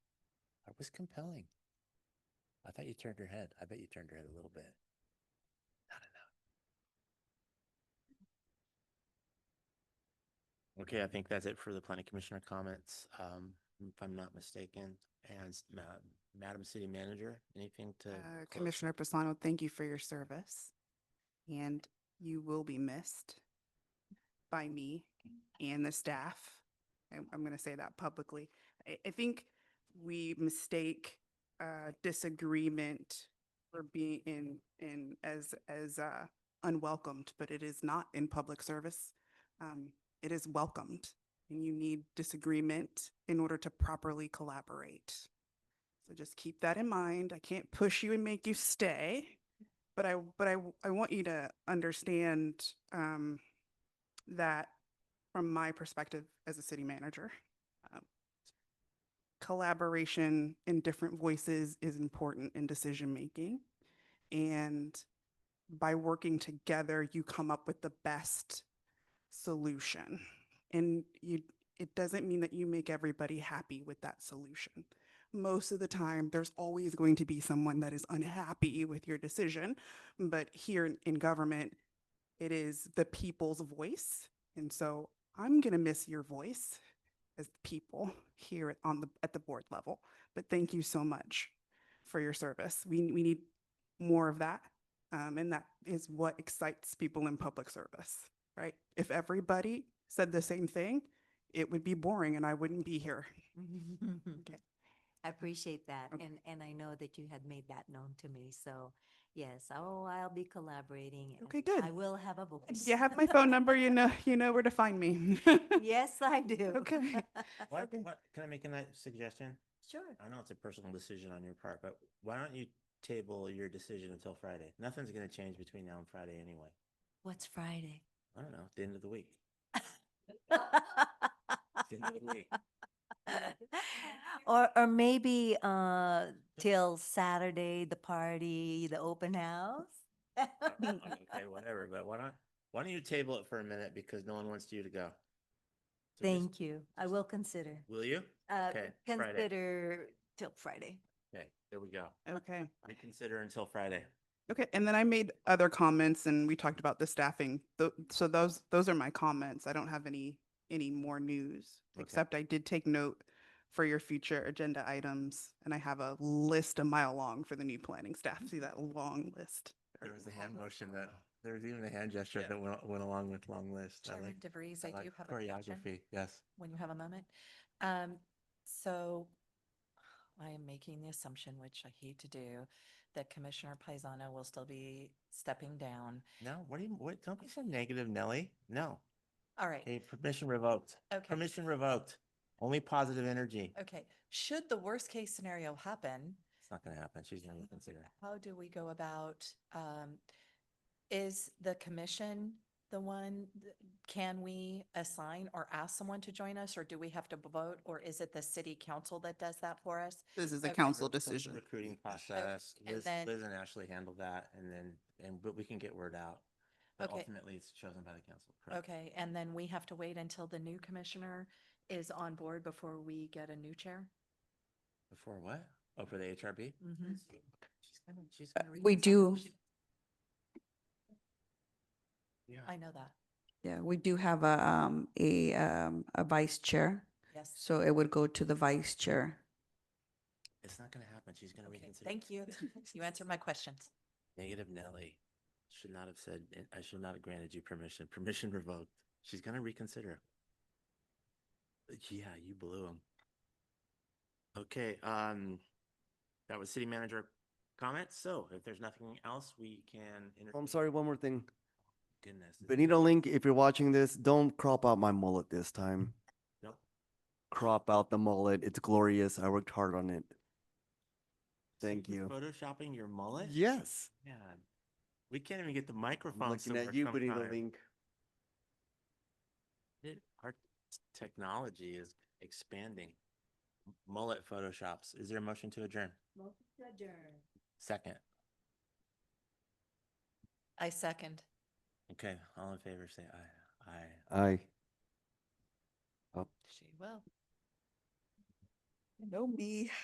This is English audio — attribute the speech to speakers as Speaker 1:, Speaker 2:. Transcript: Speaker 1: was compelling. I thought you turned her head. I bet you turned her head a little bit. Not enough. Okay, I think that's it for the planning commissioner comments, um, if I'm not mistaken. And s- ma- Madam City Manager, anything to?
Speaker 2: Uh,
Speaker 1: close?
Speaker 2: Commissioner Pisano, thank you for your service. And you will be missed by me and the staff. I'm, I'm going to say that publicly. I, I think we mistake uh, disagreement for being in, in, as, as uh, unwelcomed, but it is not in public service. Um, It is welcomed and you need disagreement in order to properly collaborate. So just keep that in mind. I can't push you and make you stay, but I, but I, w- I want you to understand, um, that from my perspective as a city manager, um, collaboration and different voices is important in decision-making. And by working together, you come up with the best solution. And you, it doesn't mean that you make everybody happy with that solution most of the time, there's always going to be someone that is unhappy with your decision. But here in- in government, it is the people's voice. And so I'm going to miss your voice as the people here at- on the, at the board level. But thank you so much for your service. We, we need more of that. Um, and that is what excites people in public service, right? If everybody said the same thing, it would be boring and I wouldn't be here.
Speaker 3: I appreciate that.
Speaker 2: Okay.
Speaker 3: And, and I know that you had made that known to me. So yes, oh, I'll be collaborating. and
Speaker 2: Okay, good.
Speaker 3: I will have a voice.
Speaker 2: You have my phone number, you know, you know where to find me.
Speaker 3: Yes, I do.
Speaker 2: Okay.
Speaker 1: What, what, can I make a nice suggestion?
Speaker 3: Sure.
Speaker 1: I know it's a personal decision on your part, but why don't you table your decision until Friday? Nothing's gonna change between now and Friday anyway.
Speaker 3: What's Friday?
Speaker 1: I don't know, the end of the week. The end of the week.
Speaker 3: Or, or maybe, uh, till Saturday, the party, the open house?
Speaker 1: I'm Okay, whatever, but why not, why don't you table it for a minute because no one wants you to go? So just-
Speaker 3: Thank you. I will consider,
Speaker 1: Will you?
Speaker 3: uh,
Speaker 1: Okay, Friday.
Speaker 3: consider till Friday.
Speaker 1: Okay, there we go.
Speaker 2: Okay.
Speaker 1: Reconsider until Friday.
Speaker 2: Okay. And then I made other comments and we talked about the staffing. Tho- So those, those are my comments. I don't have any, any more news,
Speaker 1: Okay.
Speaker 2: except I did take note for your future agenda items. And I have a list a mile long for the new planning staff. See that long list?
Speaker 1: There was a hand motion that, there was even a hand gesture that went, went along with long list. I
Speaker 4: Chairman
Speaker 1: like,
Speaker 4: DeVries,
Speaker 1: I
Speaker 4: I do
Speaker 1: like
Speaker 4: have a question
Speaker 1: choreography, yes.
Speaker 4: when you have a moment. Um, so I am making the assumption, which I hate to do, that Commissioner Paisano will still be stepping down.
Speaker 1: No, what do you, what, don't be so negative, Nelly. No.
Speaker 4: All right,
Speaker 1: Hey, permission revoked.
Speaker 4: okay,
Speaker 1: Permission revoked. Only positive energy.
Speaker 4: okay. Should the worst case scenario happen,
Speaker 1: It's not gonna happen. She's gonna reconsider.
Speaker 4: how do we go about, um, is the commission the one, th- can we assign or ask someone to join us, or do we have to vote, or is it the city council that does that for us?
Speaker 2: This is a
Speaker 4: Okay.
Speaker 2: council
Speaker 1: That's the
Speaker 2: decision.
Speaker 1: Recruiting process.
Speaker 4: and
Speaker 1: Liz,
Speaker 4: then-
Speaker 1: Liz and Ashley handle that and then, and, but we can get word out. But
Speaker 4: Okay.
Speaker 1: ultimately, it's chosen by the council. correct?
Speaker 4: Okay, and then we have to wait until the new commissioner is on board before we get a new chair?
Speaker 1: Before what? Oh, for the HRB?
Speaker 4: Mhm.
Speaker 1: She's gonna- she's
Speaker 4: Uh,
Speaker 1: gonna
Speaker 5: we
Speaker 1: reconsider.
Speaker 5: do.
Speaker 1: She- Yeah.
Speaker 4: I know that,
Speaker 5: Yeah, we do have a, um, a, um, a vice chair,
Speaker 4: yes.
Speaker 5: so it would go to the vice chair.
Speaker 1: It's not gonna happen. She's gonna
Speaker 4: Okay,
Speaker 1: reconsider.
Speaker 4: Thank you. You answered my questions.
Speaker 1: Negative Nelly. Should not have said, I should not have granted you permission. Permission revoked. She's gonna reconsider. Uh, Yeah, you blew him. Okay, um, that was city manager comments. So if there's nothing else, we can.
Speaker 6: Oh,
Speaker 1: entertain-
Speaker 6: I'm sorry, one more thing.
Speaker 1: Goodness. it's-
Speaker 6: Benito Link, if you're watching this, don't crop out my mullet this time.
Speaker 1: Nope.
Speaker 6: Crop out the mullet. It's glorious. I worked hard on it. Thank
Speaker 1: You're
Speaker 6: you.
Speaker 1: Photoshopping your mullet?
Speaker 6: Yes.
Speaker 1: Man, we can't even get the
Speaker 6: I'm
Speaker 1: microphone.
Speaker 6: looking at you, Benito Link.
Speaker 1: It- Our technology is expanding. M- Mullet photoshops. Is there a motion to adjourn? Second.
Speaker 4: I second.
Speaker 1: Okay, all in favor, say aye. Aye.
Speaker 6: Aye.
Speaker 4: She will.
Speaker 5: No me.